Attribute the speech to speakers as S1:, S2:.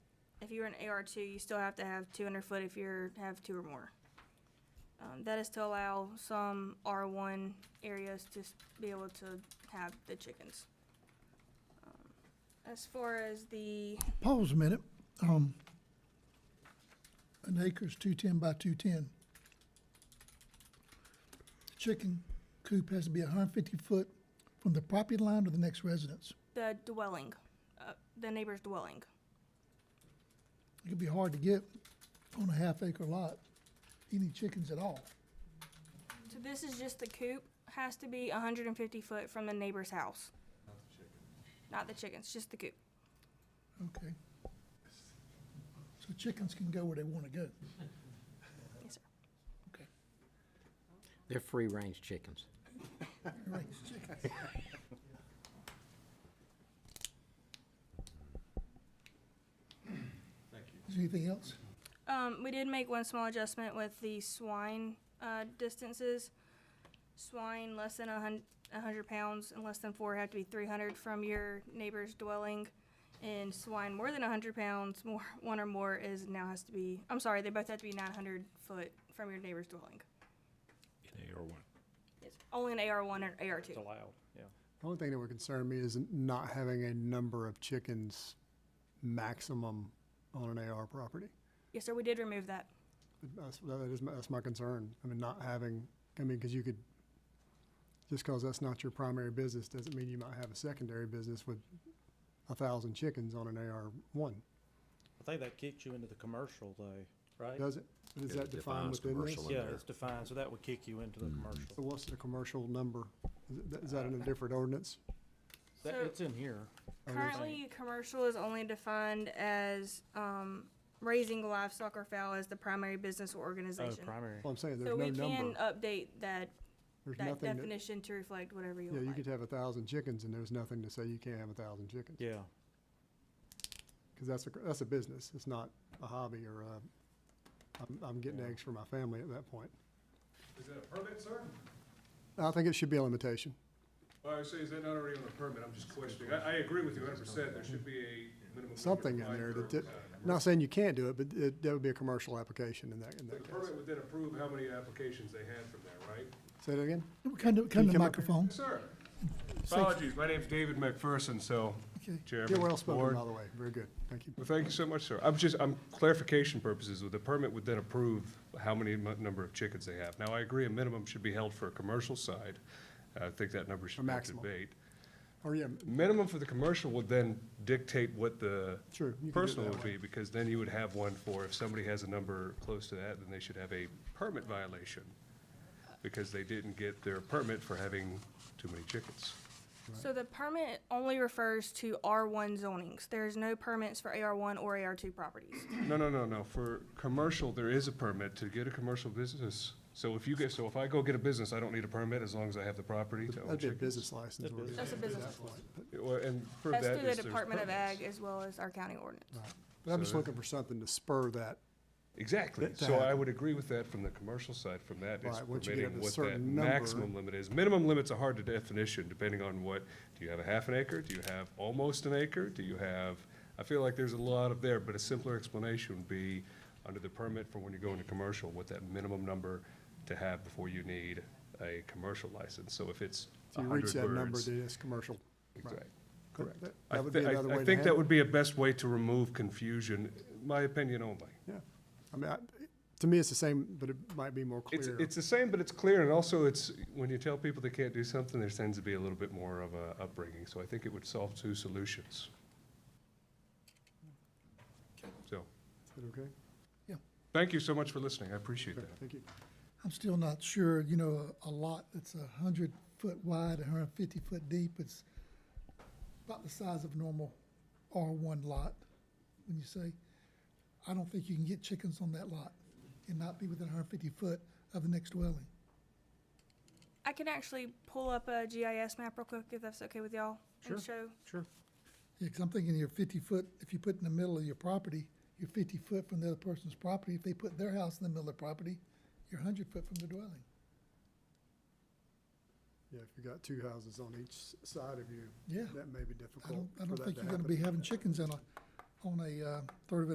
S1: if you're an AR two, you still have to have two hundred foot if you're, have two or more. Um, that is to allow some R one areas to s- be able to have the chickens. Um, As far as the,
S2: Pause a minute. Um, an acre's two ten by two ten. Chicken coop has to be hundred and fifty foot from the property line to the next residence.
S1: the dwelling, uh, the neighbor's dwelling,
S2: It could be hard to get on a half acre lot, any chickens at all.
S1: so this is just the coop, has to be hundred and fifty foot from the neighbor's house. Not the chickens. Not the chickens, just the coop.
S2: Okay. So chickens can go where they wanna go.
S1: Yes, sir.
S2: Okay.
S3: They're free-range chickens.
S2: All right, chickens. Is there anything else?
S1: Um, we did make one small adjustment with the swine, uh, distances. Swine less than a hun- a hundred pounds and less than four have to be three hundred from your neighbor's dwelling. And swine more than a hundred pounds, more, one or more is now has to be, I'm sorry, they both have to be nine hundred foot from your neighbor's dwelling.
S4: In AR one.
S1: It's only an AR one and AR two.
S5: It's allowed, yeah.
S6: The only thing that would concern me is not having a number of chickens maximum on an AR property.
S1: Yes, sir, we did remove that.
S6: That's, that is, my- that's my concern. I mean, not having, I mean, because you could, just because that's not your primary business doesn't mean you might have a secondary business with a thousand chickens on an AR one,
S5: I think that kicks you into the commercial though, right?
S6: does it? Is
S4: It
S6: that defined
S4: defines
S6: within this?
S4: commercial in
S5: Yeah,
S4: there.
S5: it's defined, so that would kick you into the
S6: So
S5: commercial.
S6: what's the commercial number? Is it- Is that in a different ordinance?
S5: That,
S1: So-
S5: it's in here.
S6: Or is-
S1: Currently, commercial is only defined as, um, raising livestock or fowl as the primary business or
S5: Oh,
S1: organization.
S5: primary.
S6: Well, I'm saying,
S1: So
S6: there's no
S1: we can
S6: number.
S1: update that,
S6: There's
S1: that
S6: nothing that,
S1: definition to reflect whatever you
S6: yeah,
S1: would
S6: you
S1: like.
S6: could have a thousand chickens and there's nothing to say you can't have a thousand chickens.
S5: Yeah,
S6: Because that's a, that's a business, it's not a hobby or a, I'm, I'm getting
S5: Yeah.
S6: eggs for my family at that point.
S7: Is that a permit, sir?
S6: I think it should be a limitation.
S7: Well, I say, is that not already on the permit? I'm just questioning. I, I agree with you hundred percent. There should be a minimum.
S6: Something in there that- that- Not saying you can't do it, but it, that would be a commercial application in that, in
S7: The
S6: that case.
S7: permit would then approve how many applications they had from there, right?
S6: Say that again?
S2: Come to, come to the
S6: come up here?
S2: microphone.
S7: Yes, sir. Apologies, my name's David McPherson, so,
S2: Okay.
S7: Chairman.
S6: You're well spoken,
S7: Board.
S6: by the way, very good, thank you.
S7: Well, thank you so much, sir. I'm just, I'm clarification purposes, the permit would then approve how many mu- number of chickens they have. Now, I agree, a minimum should be held for a commercial side. I think that number should be
S6: maximum.
S7: debate.
S6: Or Oh, yeah,
S7: Minimum for the commercial would then dictate what the
S6: Sure, you could do it
S7: personal
S6: that
S7: would be, because then you would have one for, if somebody has a number close to that, then they should have a permit violation, because they didn't get their permit for having too many chickens.
S1: So the permit only refers to R one zonings. There's no permits for AR one or AR two properties.
S7: No, no, no, no, for commercial, there is a permit to get a commercial business. So if you get, so if I go get a business, I don't need a permit as long as I have the property to own
S6: that'd be a
S7: chickens.
S6: business license.
S5: That'd
S6: where
S5: be-
S6: it
S1: That's a
S6: would be
S1: business
S6: that point. But-
S7: Well, And for that
S1: That's
S7: is
S1: through the
S7: there's
S1: Department of
S7: permits.
S1: Ag as well as our county ordinance.
S6: right. But I'm just
S7: So-
S6: looking for something to spur that,
S7: Exactly,
S6: that to
S7: so I
S6: happen.
S7: would agree with that from the commercial side, from that, it's
S6: Right, once you get up
S7: permitting
S6: to a
S7: what that
S6: certain number-
S7: maximum limit is. Minimum limit's a hard definition, depending on what, do you have a half an acre, do you have almost an acre, do you have, I feel like there's a lot of there, but a simpler explanation would be, under the permit for when you go into commercial, what that minimum number to have before you need a commercial license, so if it's
S6: if
S7: a
S6: you reach
S7: hundred
S6: that number,
S7: words.
S6: that is commercial. Right.
S7: Exactly.
S6: That-
S7: Correct.
S6: that-
S7: I
S6: That would
S7: thi-
S6: be
S7: I-
S6: another way to
S7: I think
S6: handle
S7: that
S6: it.
S7: would be a best way to remove confusion, my opinion only.
S6: Yeah, I mean, I, to me, it's the same, but it might be more
S7: It's,
S6: clear.
S7: it's the same, but it's clear, and also it's, when you tell people they can't do something, there tends to be a little bit more of a upbringing, so I think it would solve two solutions. So,
S6: Is that okay?
S7: thank you so much for listening, I appreciate
S6: Okay,
S7: that.
S6: thank you.
S2: I'm still not sure, you know, a a lot that's a hundred foot wide, a hundred and fifty foot deep, it's about the size of a normal R one lot, when you say, I don't think you can get chickens on that lot and not be within hundred and fifty foot of the next dwelling.
S1: I can actually pull up a GIS map real quick if that's okay with y'all and show.
S5: Sure.
S2: Yeah, 'cause I'm thinking your fifty foot, if you put in the middle of your property, you're fifty foot from the other person's property, if they put their house in the middle of the property, you're hundred foot from the dwelling.
S6: Yeah, if you got two houses on each s- side of you,
S2: Yeah.
S6: that may be
S2: I
S6: difficult
S2: don't, I
S6: for
S2: don't
S6: that
S2: think
S6: to
S2: you're gonna
S6: happen.
S2: be having chickens on a, on a, uh, third of